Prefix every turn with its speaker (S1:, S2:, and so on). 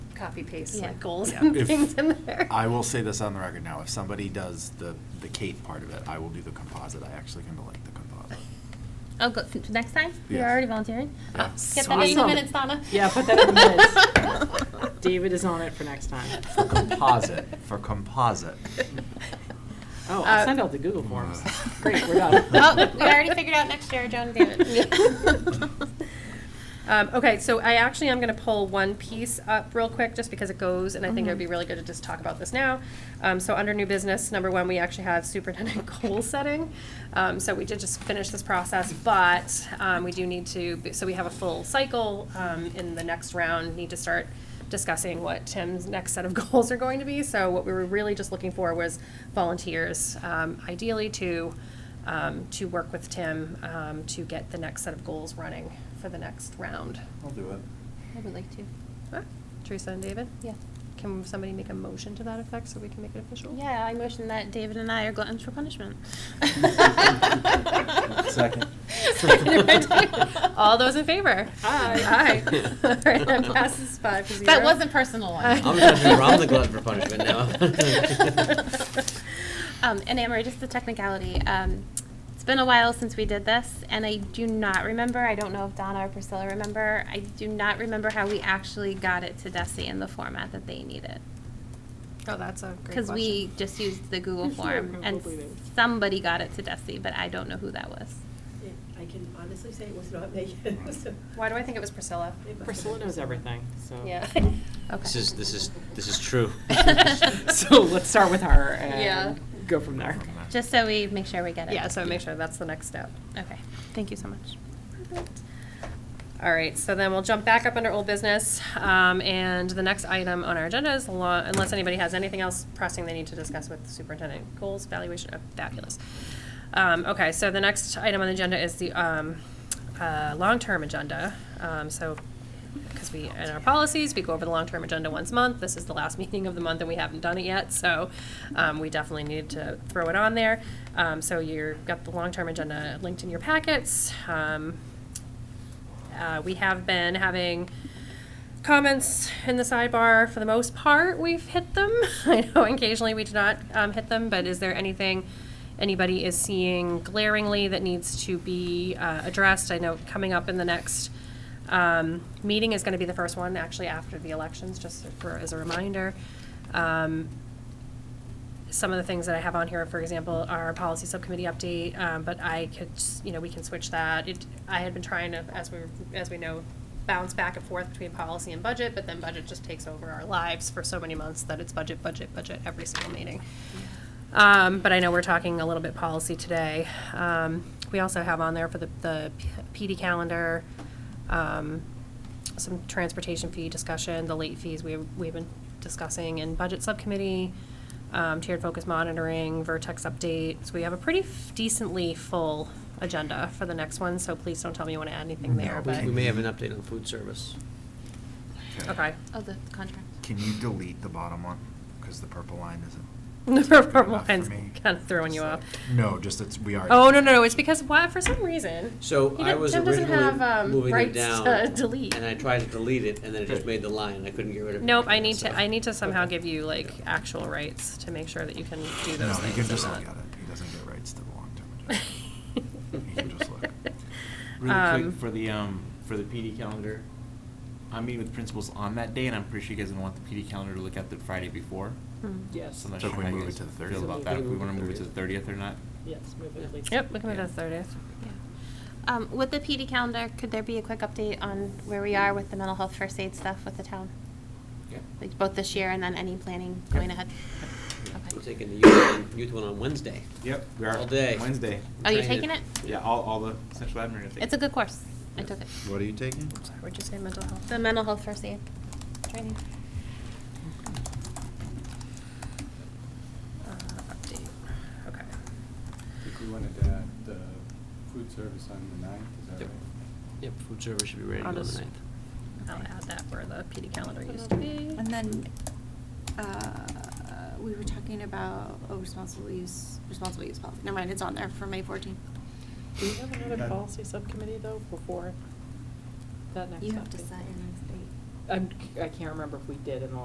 S1: copy paste
S2: Yeah.
S1: like goals
S3: Yeah.
S1: and
S3: If-
S1: things in there.
S3: I will say this on the record now, if somebody does the, the cake part of it, I will do the composite, I actually kind of like the composite.
S2: Oh, go, f- next time? You're
S3: Yes.
S2: already volunteering?
S3: Yeah.
S2: Get that in the
S4: Awesome.
S2: minutes, Donna.
S4: Yeah, put that in the minutes. David is on it for next time.
S3: For composite, for composite.
S4: Oh,
S1: Uh,
S4: I'll send out the Google forms. Great, we're done.
S2: Oh, we already figured out next year, Joan and David.
S1: Um, okay, so I actually am going to pull one piece up real quick just because it goes, and I think it would be really good to just talk about this now. Um, so under new business, number one, we actually have superintendent goal setting. Um, so we did just finish this process, but um, we do need to. So we have a full cycle um, in the next round. Need to start discussing what Tim's next set of goals are going to be. So what we were really just looking for was volunteers, um, ideally to um, to work with Tim um, to get the next set of goals running for the next round.
S3: I'll do it.
S2: I would like to,
S1: Huh? Teresa and David,
S2: yeah.
S1: can somebody make a motion to that effect so we can make it official?
S2: Yeah, I motion that David and I are gluttons for punishment.
S3: Second.
S1: Seconded by David. All those in favor?
S4: Aye.
S1: Aye. All right, that passes five to zero.
S2: That wasn't personal one.
S1: I'm
S5: I'm gonna remember I'm the glutton for punishment now.
S2: Um, and Amory, just the technicality, um, it's been a while since we did this, and I do not remember, I don't know if Donna or Priscilla remember, I do not remember how we actually got it to Desi in the format that they needed.
S1: Oh, that's a great question.
S2: Because we just used the Google
S4: I'm sure
S2: form,
S4: it
S2: and
S4: probably did.
S2: somebody got it to Desi, but I don't know who that was.
S6: Yeah, I can honestly say it was not me. So,
S1: Why do I think it was Priscilla?
S6: it must have
S4: Priscilla
S6: been
S4: knows everything, so.
S1: Yeah.
S2: Okay.
S5: This is, this is, this is true.
S4: So let's start with her
S1: Yeah.
S4: and go from there.
S2: Just so we make sure we get it.
S1: Yeah, so make sure that's the next step.
S2: Okay, thank you so much.
S1: All right, so then we'll jump back up under old business, um, and the next item on our agenda is, law- unless anybody has anything else pressing they need to discuss with superintendent goals, valuation, uh, fabulous. Um, okay, so the next item on the agenda is the, um, uh, long-term agenda, um, so, because we, in our policies, we go over the long-term agenda once a month, this is the last meeting of the month and we haven't done it yet, so, um, we definitely need to throw it on there. Um, so you've got the long-term agenda linked in your packets, um, uh, we have been having comments in the sidebar for the most part. We've hit them. I know occasionally we do not um, hit them, but is there anything anybody is seeing glaringly that needs to be uh, addressed? I know coming up in the next um, meeting is going to be the first one, actually after the elections, just for as a reminder. Um, some of the things that I have on here, for example, our policy subcommittee update, um, but I could, s- you know, we can switch that. It, I had been trying to, as we, as we know, bounce back and forth between policy and budget, but then budget just takes over our lives for so many months that it's budget, budget, budget every single meeting. Um, but I know we're talking a little bit policy today. Um, we also have on there for the, the PD calendar, um, some transportation fee discussion, the late fees we've, we've been discussing in budget subcommittee, um, tiered focus monitoring, vertex updates. We have a pretty f- decently full agenda for the next one, so please don't tell me you want to add anything there,
S5: We
S1: but,
S5: we may have an update on food service.
S1: okay.
S2: Oh, the contract.
S3: Can you delete the bottom one? Because the purple line isn't.
S1: The
S3: good
S1: purple
S3: enough for
S1: line's
S3: me.
S1: kind of throwing you off.
S3: No, just it's, we are.
S1: Oh, no, no, no, it's because, why, for some reason,
S5: So
S1: He
S5: I
S1: didn't-
S5: was
S1: Tim doesn't have,
S5: originally
S1: um,
S5: moving it
S1: rights
S5: down.
S1: to delete.
S5: And I tried to delete it, and then it just made the line, and I couldn't get rid of it.
S1: Nope, I need to,
S5: So-
S1: I need to somehow
S5: Okay.
S1: give you like actual rights to make sure that you can do
S3: No,
S1: those
S3: he
S1: things.
S3: can
S1: and
S3: just look
S1: not-
S3: at it. He doesn't get rights to the long-term agenda. He can just look.
S7: Really
S1: Um,
S7: quick, for the, um, for the PD calendar, I'm meeting with principals on that day, and I'm pretty sure you guys don't want the PD calendar to look at the Friday before.
S1: hmm.
S4: Yes,
S7: So I'm not
S3: So
S7: sure
S3: can we
S7: how you
S3: move it
S7: guys
S3: to the
S7: Feel
S3: 30th?
S7: about that, if we
S5: Move it
S7: wanna
S5: to the
S7: move it to the thirtieth or not.
S4: yes, move it at least.
S1: Yep, we can move
S7: Yeah.
S1: to the thirtieth.
S2: Um, with the PD calendar, could there be a quick update on where we are with the mental health first aid stuff with the town?
S7: Yeah.
S2: Like both this year and then any planning going ahead?
S5: I'm
S2: Okay.
S5: taking the youth one- youth one on Wednesday.
S7: Yep, we
S5: are. All day.
S7: Wednesday.
S2: Are you
S5: Trying to-
S2: taking it?
S7: Yeah, all, all the central admin.
S2: It's a good course. I took it.
S3: What are you taking?
S1: Sorry, what'd you say, mental health?
S2: The mental health first aid training.
S1: Uh, update, okay.
S8: I think we wanted to add the food service on the ninth, is that
S5: Yep.
S8: right?
S5: Yep, food service should be ready
S1: I'll
S5: on the
S1: just-
S5: ninth.
S1: I'll add that where the PD calendar used to be.
S9: And then, uh, we were talking about, oh, responsible use, responsible use policy, never mind, it's on there for May fourteenth.
S4: Do we have another policy subcommittee though before that next update?
S9: your next date.
S4: I'm, I can't remember if we did in the